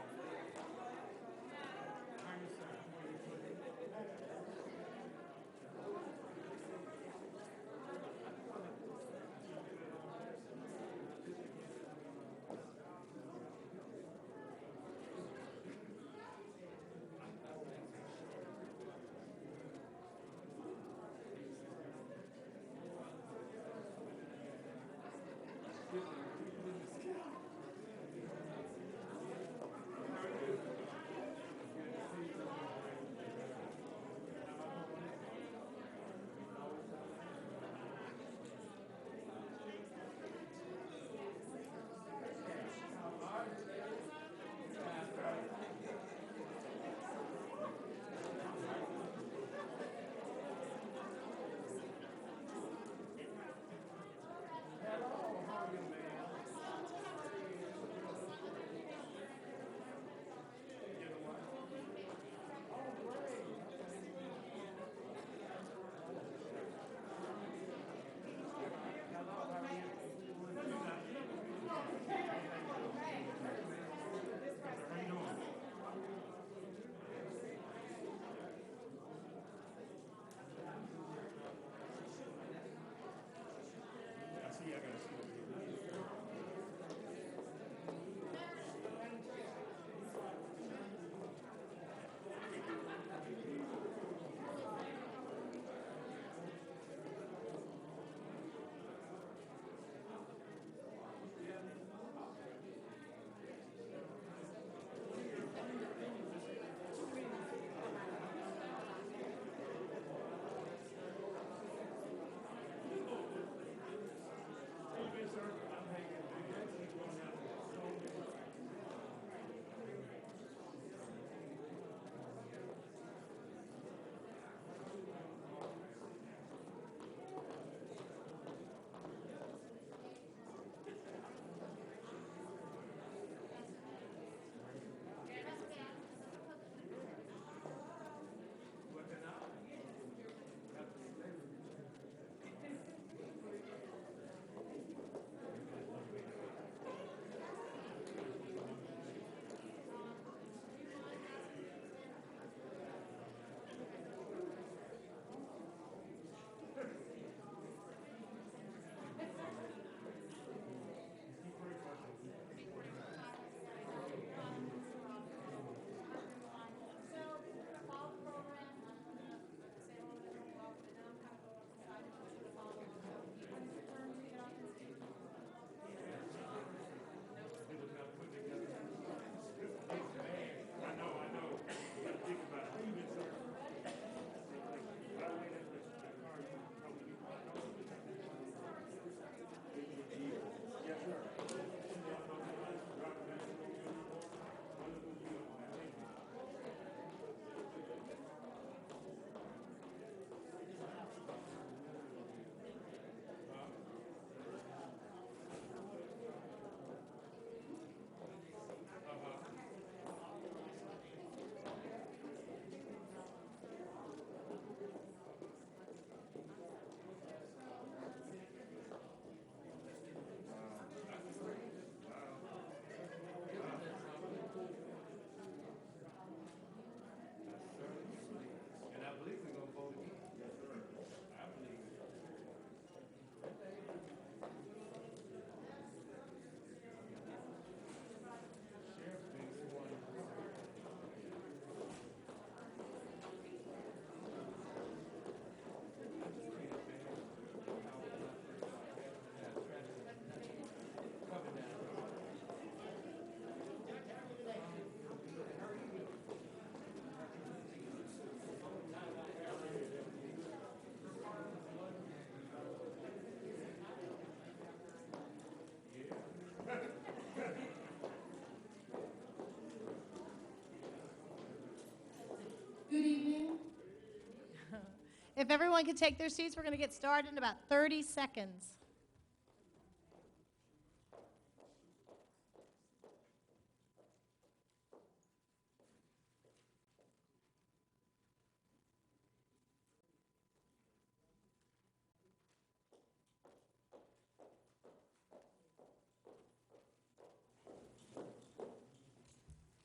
Good evening. If everyone could take their seats, we're going to get started in about 30 seconds.